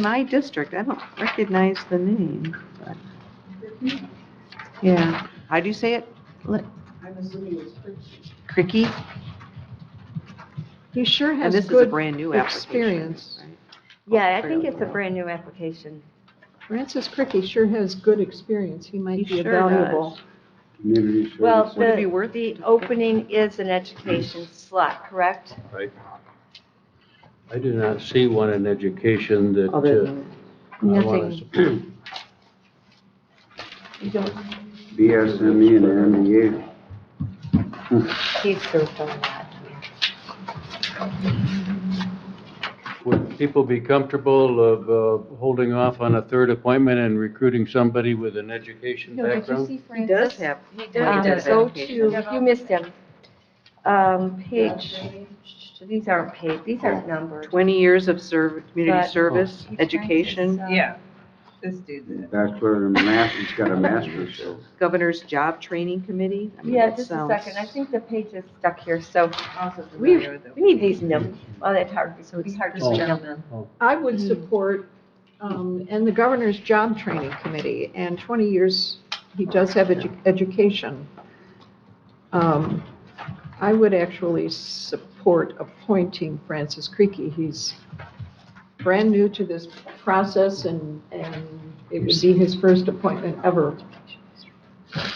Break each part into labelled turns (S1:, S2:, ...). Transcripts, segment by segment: S1: my district, I don't recognize the name, but, yeah. How do you say it? Let-
S2: I'm assuming it's Fritz.
S1: Cricky?
S3: He sure
S1: And
S3: has
S1: this is a
S3: good
S1: brand-new application.
S3: experience.
S1: right?
S4: Yeah, I think it's a brand-new application.
S3: Francis Cricky sure has good experience. He
S1: He
S3: might be a
S1: sure does.
S3: valuable.
S5: Community service.
S4: Well,
S1: Would it be
S4: the,
S1: worth
S4: the opening is an education slot, correct?
S5: I do not see one in education that.
S1: Other
S5: uh,
S1: than-
S5: I wanna s-
S6: BSME E and MBA.
S4: He's served on that.
S5: Would people be comfortable of uh, holding off on a third appointment and recruiting somebody with an education background?
S1: He does have,
S2: He
S1: does
S4: Um,
S1: have
S4: Go
S1: education.
S4: to, you missed him. Um, page, these aren't paid, these aren't numbered.
S1: 20 years of serv, community
S4: But-
S1: service, education,
S2: Yeah, this dude's in it.
S6: Bachelor and master, he's got a master's, so.
S1: governor's job training committee? I mean,
S4: Yeah,
S1: that
S4: just a
S1: sounds-
S4: second, I think the page is stuck here, so
S2: Also
S4: we,
S2: familiar with
S4: we need these numbers. Oh, that's hard, it's gonna be hard to
S5: Oh.
S4: see them.
S3: I
S1: Hmm.
S3: would support, um, and the governor's job training committee, and 20 years, he does have edu- education. Um, I would actually support appointing Francis Creaky. He's brand new to this process, and, and it would be his first appointment ever.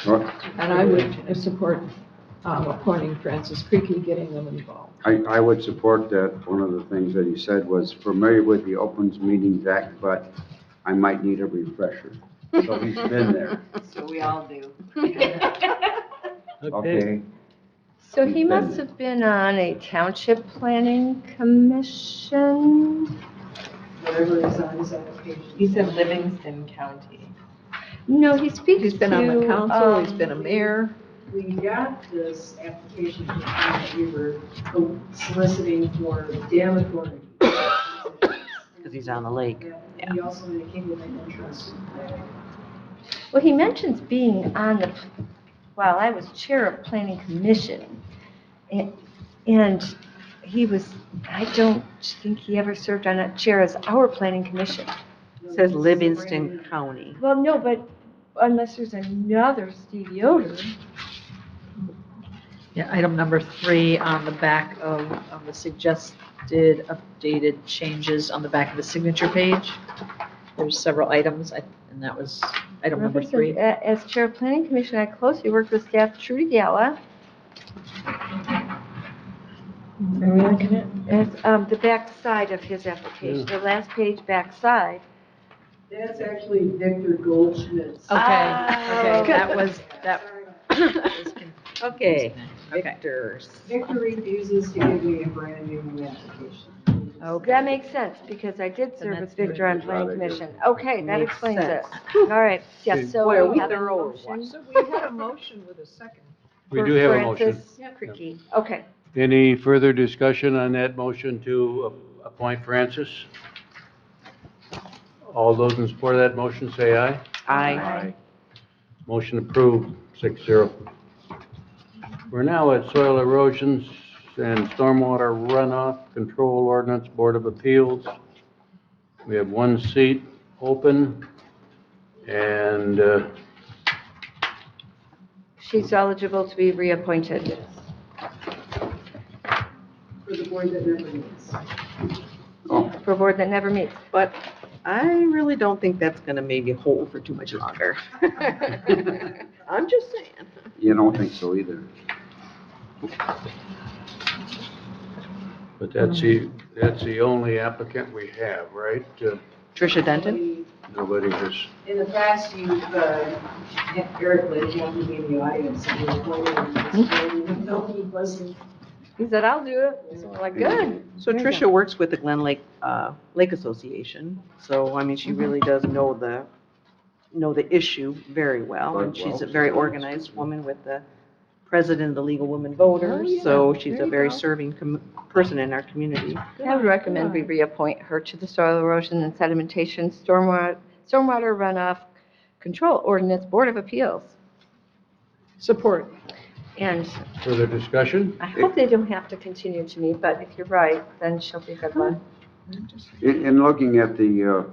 S6: Well,
S3: And I would support um, appointing Francis Creaky, getting them involved.
S6: I, I would support that. One of the things that he said was familiar with the Opens Meetings Act, but I might need a refresher. So he's been there,
S2: it. So we all do.
S5: Okay,
S6: okay?
S4: So he must have been on a township planning commission?
S2: Whatever is on his application. He's in Livingston County.
S4: No, he speaks
S3: He's been on the
S4: to,
S3: council, he's
S4: um,
S3: been a mayor.
S2: We got this application that we were uh, soliciting for dam authority.
S1: Because he's on the lake.
S2: He also indicated an interest.
S4: Well, he mentions being on the, well, I was chair of planning commission. a- And he was, I don't think he ever served on a chair as our planning commission.
S1: It Says Livingston County.
S4: Well, no, but unless there's another Steve Yoder.
S7: Yeah, item number three on the back of, of the suggested updated changes on the back of the signature page. There's several items, I- and that was item number
S4: Robert says,
S7: three.
S4: "A- As chair of planning commission, I closely worked with staff Trudy Gala. Are we looking at? As, um, the back side of his application, the last page back side.
S2: That's actually Victor Goldschmidt's.
S7: Okay,
S4: Ah.
S7: okay, that was, that was
S1: Okay.
S7: confusing. Okay.
S1: Victor's.
S2: Victor refuses to give me a brand new application.
S3: Oh,
S7: Okay.
S4: That makes sense, because I did serve
S7: that's
S4: with Victor on
S6: good.
S4: planning
S6: Glad I did.
S4: commission. Okay, that
S1: Makes
S4: explains it.
S1: sense.
S4: All right, yes, so.
S1: Boy, are we
S4: have a
S1: thorough or
S4: motion
S1: what?
S3: So we had a motion with a second.
S5: we
S4: for
S5: do have a motion.
S4: Francis Cricky. Okay,
S5: Any further discussion on that motion to a- appoint Francis? All those in support of that motion, say aye.
S1: I,
S5: Motion approved, six zero. We're now at Soil Erosions and Stormwater Runoff Control Ordinance Board of Appeals. We have one seat open, and uh,
S4: she's eligible to be reappointed.
S2: For the board that never meets.
S6: Oh,
S4: for a board that never meets.
S1: but I really don't think that's going to maybe hold for too much longer. I'm just saying.
S6: you don't think so either.
S5: but that's the, that's the only applicant we have, right? Uh,
S1: Tricia Denton?
S5: Nobody has,
S2: In the past, you've, uh, Eric lived down in the audience, and you were holding this, and no, he wasn't.
S4: He said, I'll do it. So we're like, good.
S1: So
S4: There you
S1: Tricia works with the Glen Lake, uh, Lake Association, so, I mean, she really does know the, know the issue very well, and she's a very organized woman with the president of the League of Women Voters, so she's a very serving com- person in our community.
S4: I would recommend we reappoint her to the Soil Erosion and Sedimentation Stormwater Stormwater Runoff Control Ordinance Board of Appeals.
S3: Support.
S4: And
S5: further discussion?
S4: I hope they don't have to continue to meet, but if you're right, then she'll be a good one.
S6: In, in looking at the, uh,